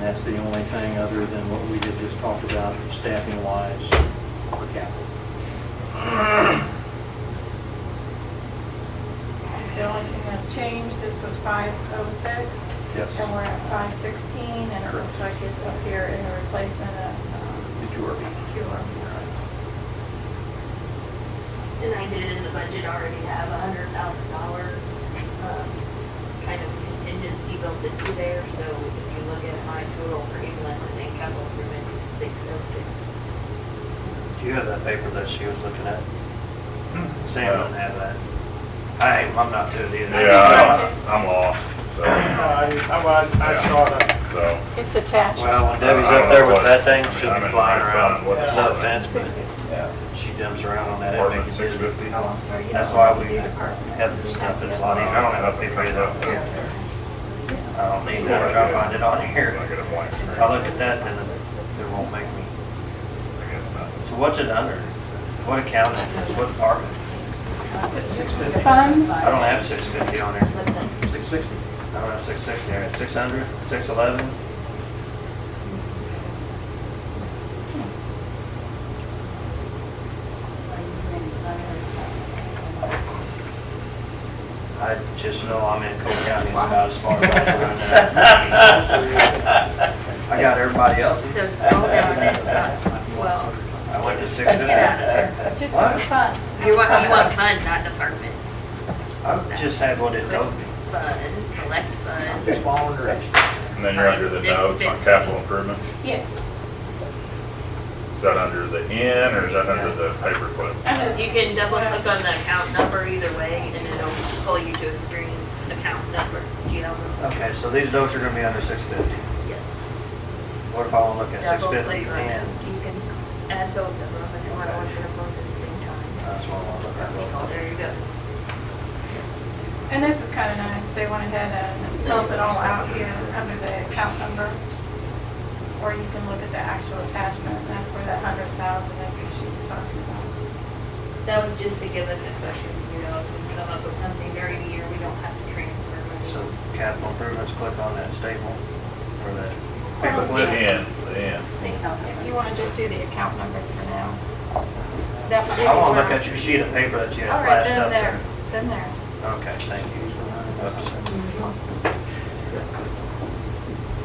that's the only thing other than what we had just talked about staffing wise for capital. The only thing that's changed, this was five oh six. Yes. And we're at five sixteen, and it looks like it's up here in the replacement of, um, Did you already? Cure. And I did in the budget already have a hundred thousand dollar, um, kind of contingency built into there, so if you look at my total for inland and capital improvement, six oh six. Do you have that paper that she was looking at? Hmm. Sam doesn't have that. I, ain't- I'm not good either. Yeah, I- I'm lost, so, Uh, I, I, I saw that. so. It's attached. Well, when Debbie's up there with that thing, she'll be flying around, What- no offense, but Yeah. she dumps around on that, it Department makes six it busy. fifty. Or you That's don't why have to we do department. have this stuff, it's a lot easier, I don't have to pay that. I don't need that, I'll find it on here. I get a blank screen. If I look at that, then it it won't make me. I get nothing. So what's it under? What account is this, what department? Fund, I don't have six fifty on there. But then, Six sixty. I don't have six sixty, I got six hundred, six eleven. I just know I'm in Cole County, it's about as far as I can run that. I got everybody else's. So uh, scroll down and it's not twelve. I went to six Get out but fifty. just for What? fun. You want, you want fund, not department. I just had what it told me. Fund, select fund. Just following directions. And then you're under the notes on capital improvement. Yes. Is that under the N or is that under the paperclip? You can double click on the account number either way and it'll pull you to a screen, account number, GL number. Okay, so these notes are gonna be under six fifty. Yes. What if I wanna look at six Double fifty click on it. and, You can add both of them if you want to look at them both at the same time. that's what I wanna look Oh, at. There you go. And this is kind of nice, they went ahead and spelled it all out here under the account number. Or you can look at the actual attachment, and that's where that hundred thousand is that she was talking about. That was just to give us a question, you know, if we come up with something during the year, we don't have to transfer money. So capital improvements, click on that staple or that The N, the N. If you want to just do the account number for now. That would be. I want to look at your sheet of paper that you All had right, then flashed up there, then there. there. Okay, thank you. Oops.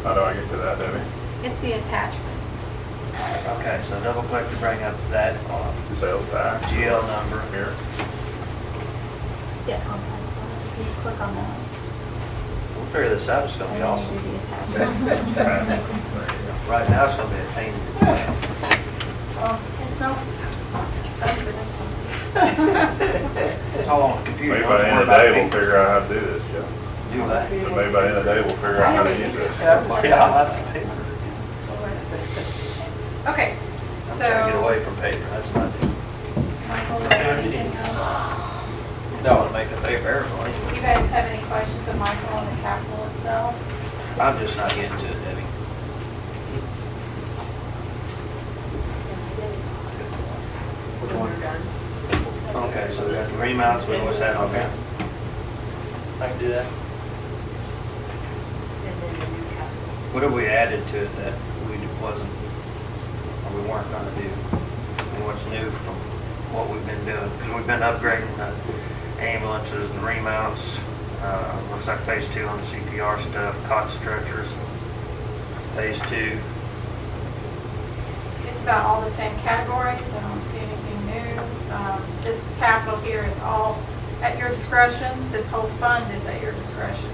How do I get to that, Debbie? It's the attachment. Okay, so double click to bring up that uh, Sales tax? GL number. Here. Yeah, on that one. If you click on that. We'll figure this out, it's gonna be and then awesome. do the attachment. Okay. There you go. Right now, it's gonna be a pain in the butt. Oh, it's no. that's for this one. It's all on the computer. Maybe don't by the end of the worry day, about we'll figure out how to do this, Joe. people. Do that. So maybe by the end of the day, we'll figure out how to use this. Yeah, lots of paper. Okay, I'm trying to get so. away from paper, that's my thing. Michael, is there anything else? Don't wanna make a paper airplane. You guys have any questions of Michael on the capital itself? I'm just not getting to it, Debbie. Which one? We're done. Okay, so we got the remounts, we always had on there. I can do that. And then the new capital. What have we added to it that we wasn't, or we weren't gonna do? And what's new from what we've been doing? Because we've been upgrading the ambulances, the remounts, uh, looks like phase two on the CPR stuff, cot stretchers, phase two. It's about all the same categories, I don't see anything new. Um, This capital here is all at your discretion, this whole fund is at your discretion.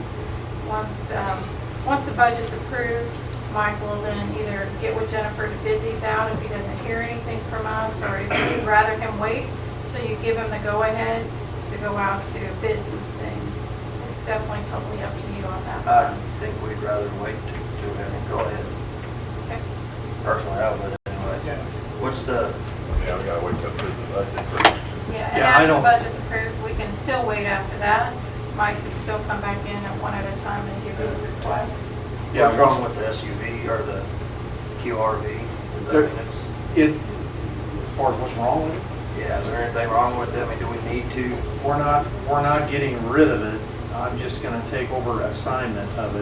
Once, um, once the budget's approved, Mike will then either get with Jennifer to bid these out if he doesn't hear anything from us, or if you'd rather him wait, so you give him the go-ahead to go out to bid these things. It's definitely totally up to you on that. I think we'd rather wait to, to have it go ahead. Okay. Personally, I would anyway. What's the, Yeah, we gotta wait till through the budget first. Yeah, and Yeah, I after the don't- budget's approved, we can still wait after that. Mike can still come back in at one at a time and give us a request. Yeah, what's wrong with the SUV or the QRV? Is that- There- It, as far as what's wrong with it, Yeah, is there anything wrong with them? I mean, do we need to? we're not, we're not getting rid of it. I'm just gonna take over assignment of it